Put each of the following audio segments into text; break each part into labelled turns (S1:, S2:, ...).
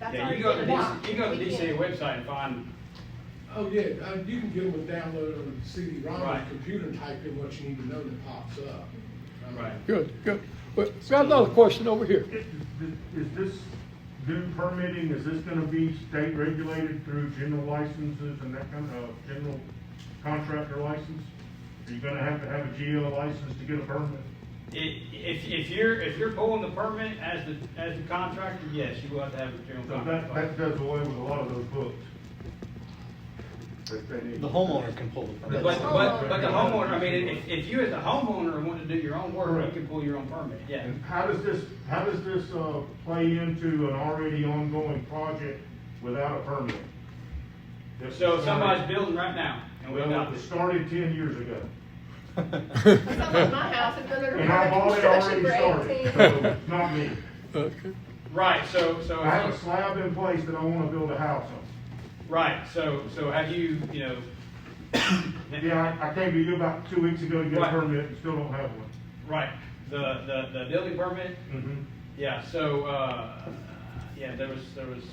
S1: That's
S2: Yeah,
S1: already
S2: you go to
S1: been
S2: the,
S1: blocked.
S2: you go to
S1: We
S2: the DCA
S1: can't-
S2: website and find,
S3: Oh, yeah, uh, you can get them a download on CD-ROM, on
S2: Right.
S3: your computer, and type in what you need to know, and it pops up. Um,
S2: right.
S4: Good, good. Well, got another question over here.
S5: Is is this new permitting, is this gonna be state regulated through general licenses and that kind of, uh, general contractor license? Are you gonna have to have a GL license to get a permit?
S2: I- If, if you're, if you're pulling the permit as the, as the contractor, yes, you will have to have a general
S5: So that, that
S2: contractor.
S5: does away with a lot of those books. that they need.
S6: The homeowner can pull the permit.
S2: But, but, but the homeowner, I mean, if, if you as a homeowner want to do your own work, you can pull your own permit, yeah.
S5: And how does this, how does this, uh, play into an already ongoing project without a permit?
S2: So if somebody's building right now and we
S5: Well,
S2: adopt
S5: it
S2: this,
S5: started ten years ago.
S1: Someone at my house has been under
S5: And I've already,
S1: construction
S5: already
S1: for
S5: started,
S1: 18.
S5: so, not me.
S4: Okay.
S2: right, so, so.
S5: I have a slab in place that I wanna build a house
S2: Right, so, so have you, you know?
S5: on. Yeah, I, I came to you about two weeks ago to get a
S2: Right.
S5: permit and still don't have one.
S2: Right, the, the, the building permit,
S5: Mm-hmm.
S2: yeah, so, uh, yeah, there was, there was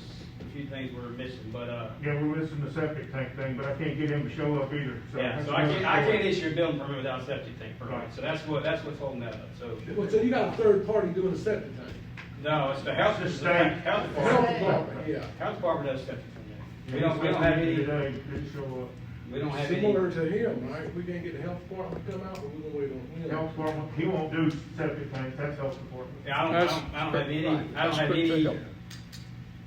S2: a few things we were missing, but, uh,
S5: Yeah, we're missing the septic tank thing, but I can't get him to show up either, so.
S2: yeah,
S5: that's
S2: so I can't, I
S5: another
S2: can't
S5: story.
S2: issue a building permit without a septic tank permit,
S5: Right.
S2: so that's what, that's what's holding that up, so.
S3: Well, so you got a third party doing a septic tank.
S2: No, it's the health, it's the
S5: State.
S2: health
S3: Health
S2: department,
S3: department, yeah.
S2: health department does septic permit.
S5: Yeah,
S2: We don't, we
S5: he's
S2: don't have
S5: supposed to be
S2: any,
S5: here Today, didn't show
S2: we don't have any,
S3: Similar to him, right? We can't get the health department to come out, but we're gonna wait on him.
S5: up. Health department, he won't do septic tanks, that's health department.
S2: yeah, I don't, I don't, I don't have any, I don't have any
S4: Right.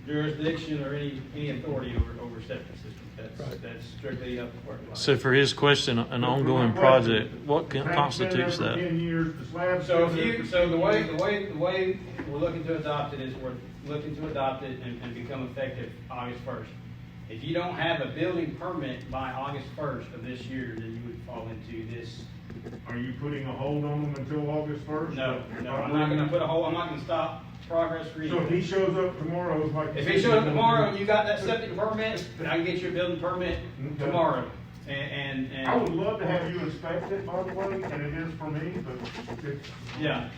S2: jurisdiction or any, any authority over, over septic systems, that's, that's strictly health department.
S7: So for his question, an ongoing project, what con-
S5: Tank's
S7: constitutes
S5: been there for
S7: that?
S5: Ten years, the slab's.
S2: So if
S5: been there
S2: you,
S5: for
S2: so the way, the way, the way we're looking to adopt it is we're looking to adopt it and, and become effective August first. If you don't have a building permit by August first of this year, then you would fall into this.
S5: Are you putting a hold on them until August first?
S2: No, no, I'm not gonna put a hole, I'm not gonna stop progress for
S5: So if he
S2: you.
S5: shows up tomorrow, like.
S2: If he showed up tomorrow and you got that septic permit, then I can get you a building permit tomorrow. And, and,
S5: I would
S2: and,
S5: love to have you inspect it, by the way, and it is for me, but it's.
S2: yeah.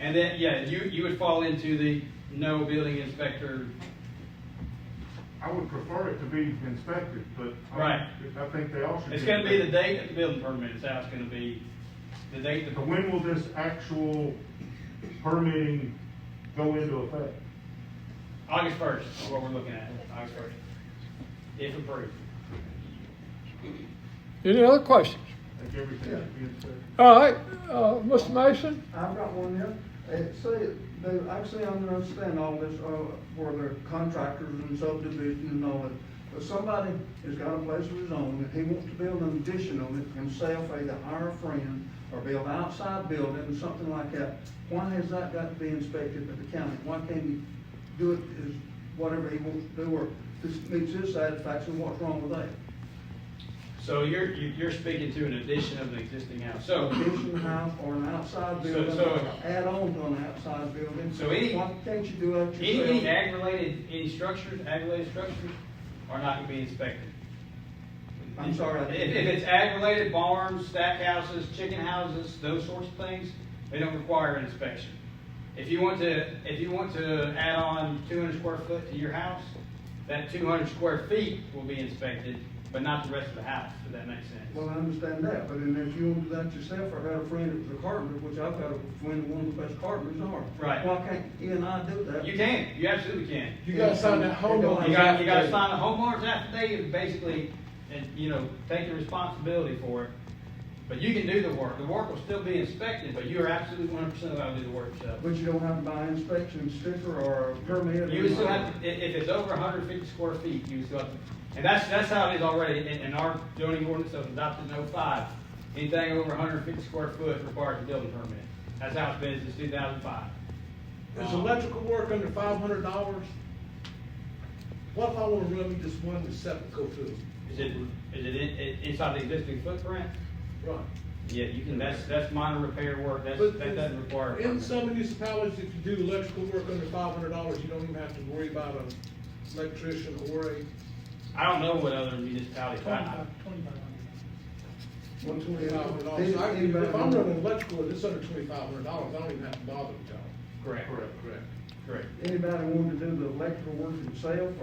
S2: And then, yeah, you, you would fall into the no building inspector
S5: I would prefer it to be inspected, but. I-
S2: Right.
S5: I think they all should.
S2: It's gonna be the
S5: inspected.
S2: date that the building permit is out, it's gonna be the date the
S5: But when will this actual permitting go into effect?
S2: August first is what we're looking at, August first. If approved.
S4: Any other questions?
S5: Like everything should be inspected?
S4: All right, uh, Mr. Mason?
S8: I've got one here. It say, Uh, they, actually, I don't understand all this, uh, where they're contractors and subdivision and all that. But somebody has got a place of his own, that he wants to build an addition on it himself, either hire a friend or build an outside building, something like that. Why has that got to be inspected by the county? Why can't he do it as whatever he wants to do, or this meets his satisfaction, what's wrong with that?
S2: So you're, you- you're speaking to an addition of an existing house, so.
S8: addition house or an
S2: So-
S8: outside building,
S2: so-
S8: add on to an outside building.
S2: So any-
S8: Why can't you do that
S2: Any, any
S8: yourself?
S2: ag-related, any structures, ag-related structures are not gonna be inspected.
S8: I'm sorry, I
S2: If,
S8: didn't-
S2: if it's ag-related barns, stack houses, chicken houses, those sorts of things, they don't require an inspection. If you want to, if you want to add on two hundred square foot to your house, that two hundred square feet will be inspected, but not the rest of the house, if that makes
S8: Well, I
S2: sense.
S8: understand that, but then if you want to do that yourself, I got a friend that was a carpenter, which I've got a friend, one of the best carpenters are.
S2: Right.
S8: Why can't he and I do that?
S2: You can, you absolutely can.
S3: You gotta sign that homeowner.
S2: You gotta, you gotta sign a homeowner's affidavit, basically, and, you know, take the responsibility for it. But you can do the work, the work will still be inspected, but you are absolutely one hundred percent allowed to do the work yourself.
S8: But you don't have to buy an inspection sticker or a permit. or
S2: You would still
S8: anything.
S2: have, to- if, if it's over hundred and fifty square feet, you would still have, to- and that's, that's how it is already in, in our zoning ordinance that was adopted in 05. Anything over hundred and fifty square foot requires a building permit. That's how it's been since two thousand five.
S3: Is electrical work under five hundred dollars? What if I wanna run this one to septical too?
S2: Is it, is it in- in- inside the existing footprint?
S3: Right.
S2: Yeah, you can, that's, that's minor repair work, that's,
S3: But
S2: that doesn't require. a
S3: In
S2: permit.
S3: some municipalities, if you do electrical work under five hundred dollars, you don't even have to worry about an electrician or a,
S2: I don't know what other municipalities, I,
S8: One
S3: twenty-five hundred dollars.
S8: These-
S3: So I-
S8: these-
S3: If I'm running electrical and it's under twenty-five hundred dollars, I don't even have to bother with y'all.
S2: correct.
S5: Correct.
S3: Correct.
S2: Correct.
S8: Anybody wanting to do the electrical work themselves,